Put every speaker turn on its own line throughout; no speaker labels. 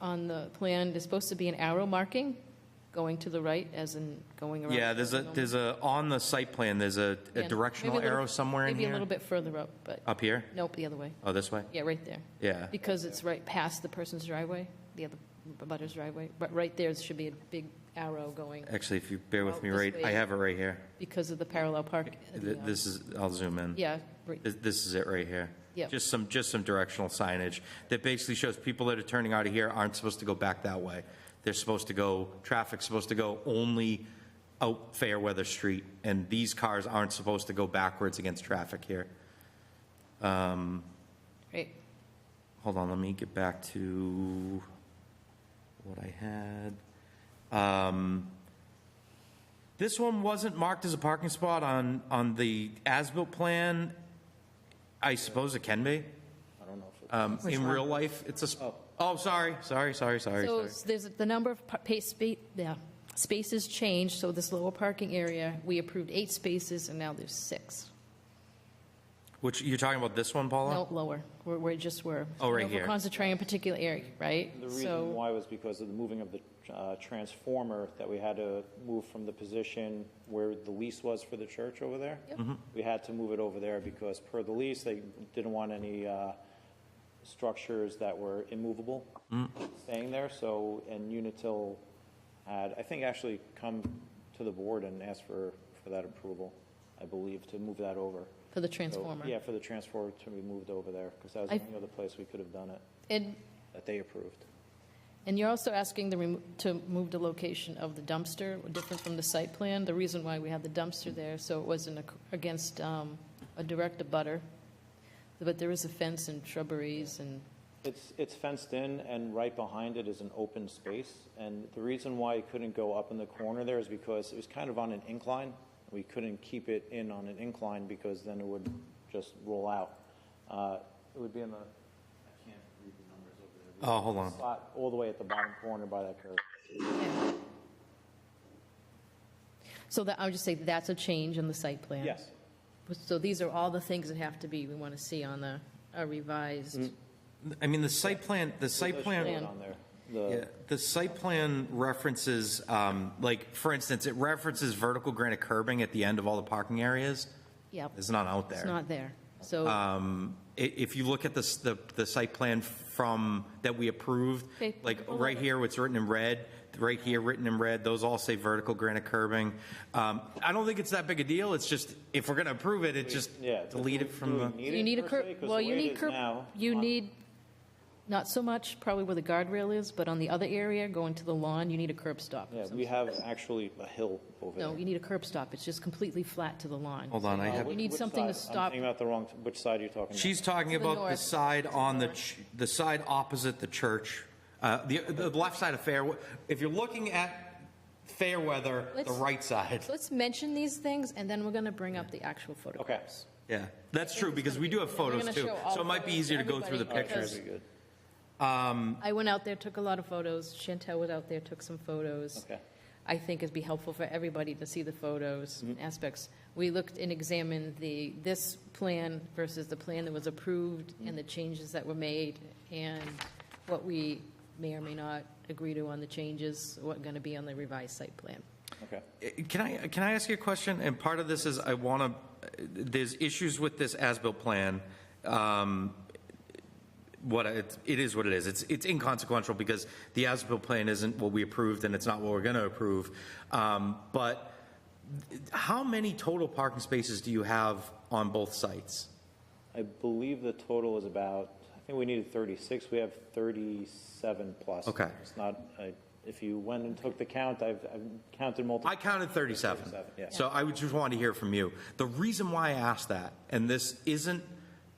on the plan is supposed to be an arrow marking going to the right as in going around.
Yeah, there's a, there's a, on the site plan, there's a a
Yeah,
directional
maybe a little-
arrow somewhere in
Maybe a
here? Uh,
little bit further up, but,
Up here?
nope, the other way.
Oh, this way?
Yeah, right there.
Yeah.
Because it's right past the person's driveway, the other butter's driveway. But right there should be a big arrow going
Actually, if you bear with
Out
me,
Oh, this
right, I
way.
have it right here.
because of the parallel park. uh,
Th- This is, I'll zoom in.
Yeah, right-
This- This is it right here.
Yep.
Just some, just some directional signage that basically shows people that are turning out of here aren't supposed to go back that way. They're supposed to go, traffic's supposed to go only out Fairweather Street, and these cars aren't supposed to go backwards against traffic here.
right.
Hold on, let me get back to what I had. Um, This one wasn't marked as a parking spot on, on the as-built plan. I suppose it can be. I don't know. Um, in real life, it's a, sp- oh, sorry, sorry, sorry, sorry,
So
sorry.
s- there's, the number of pa- pa- spa- yeah, spaces changed, so this lower parking area, we approved eight spaces, and now there's six.
Which, you're talking about this one, Paula?
No, lower, we're, we're just, we're.
Oh, right
we're
here.
Concentrating on a particular area, right?
The
So-
reason why was because of the moving of the uh, transformer, that we had to move from the position where the lease was for the church over there. We had to move it over there because per the lease, they didn't want any uh, structures that were immovable staying there, so, and Unitil had, I think, actually come to the board and asked for, for that approval, I believe, to move that over.
For the
So,
transformer.
Yeah, for the transformer to be moved over there, because that was
I-
the only other place we could have done it,
And,
that they approved.
and you're also asking the, remo- to move the location of the dumpster, different from the site plan. The reason why we had the dumpster there, so it wasn't ac- against um, a direct abutter. But there is a fence and shrubberies and,
It's, it's fenced in, and right behind it is an open space. And the reason why it couldn't go up in the corner there is because it was kind of on an incline. We couldn't keep it in on an incline because then it would just roll out. Uh, It would be in the
Oh, hold on.
spot all the way at the bottom corner by that curve.
so that, I would just say that's a change in the site plan.
Yes,
So these are all the things that have to be, we want to see on the a
Mm-hmm.
revised.
I mean, the site plan, the site plan.
put it on there. The-
Yeah, the site plan references, um, like, for instance, it references vertical granite curbing at the end of all the parking areas.
Yep,
It's not out
it's
there. Uh,
not there. So,
I- If you look at the, s- the, the site plan from, that we approved,
Okay.
like, right here, what's written in red, right here, written in red, those all say vertical granite curbing. Um, I don't think it's that big a deal, it's just, if we're gonna approve it, it just
Yeah.
delete it
Do
from
we
the.
you need a
per
curb,
se? 'Cause the
well,
way
you
it
need
is
curb,
now,
you
on-
need, not so much probably where the guardrail is, but on the other area, going to the lawn, you need a curb stop.
Yeah, we have actually a hill over there.
No, you need a curb stop. It's just completely flat to the lawn.
Hold on, I have.
You need
Which
something to
side?
stop.
I'm thinking about the wrong, which side are you talking about?
She's talking
the
about the
north.
side on the, ch- the side opposite the church, uh, the, the left side of Fair, if you're looking at Fairweather, the
Let's-
right side.
Let's mention these things, and then we're going to bring up the actual photographs.
Okay.
Yeah, that's true, because we do have
We're
photos
gonna
too,
show all
so it might be
photos
easier to go through the
everybody because-
pictures.
Very good.
I went out there, took a lot of photos. Chantel was out there, took some photos.
Okay.
I think it'd be helpful for everybody to see the photos and aspects. We looked and examined the, this plan versus the plan that was approved and the changes that were made and what we may or may not agree to on the changes, what going to be on the revised site plan.
Okay.
Uh, Can I, can I ask you a question? And part of this is I want to, there's issues with this as-built plan. Um, What, I- it's- it is what it is. It's, it's inconsequential because the as-built plan isn't what we approved and it's not what we're going to approve. Um, But how many total parking spaces do you have on both sites?
I believe the total is about, I think we needed 36, we have 37 plus.
Okay.
It's not, I- if you went and took the count, I've I've counted multiple.
I counted 37.
37, yeah.
So I would just want to hear from you. The reason why I asked that, and this isn't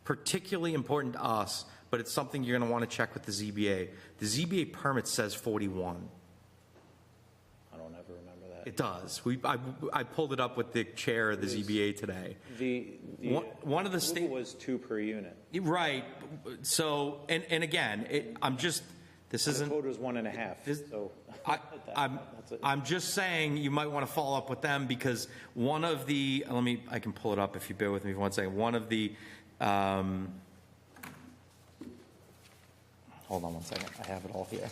particularly important to us, but it's something you're going to want to check with the ZBA. The ZBA permit says 41.
I don't ever remember that.
It does. We, I, I pulled it up with the chair of the ZBA today.
The, the.
One- one of the
approval
state-
Was two per unit.
Right, so, and, and again, it, I'm just, this
The
isn't.
code was one and a half,
This-
so.
I-
that-
I'm,
that's it.
I'm just saying, you might want to follow up with them, because one of the, let me, I can pull it up if you bear with me for one second. One of the, um,
Hold on one second, I have it all here.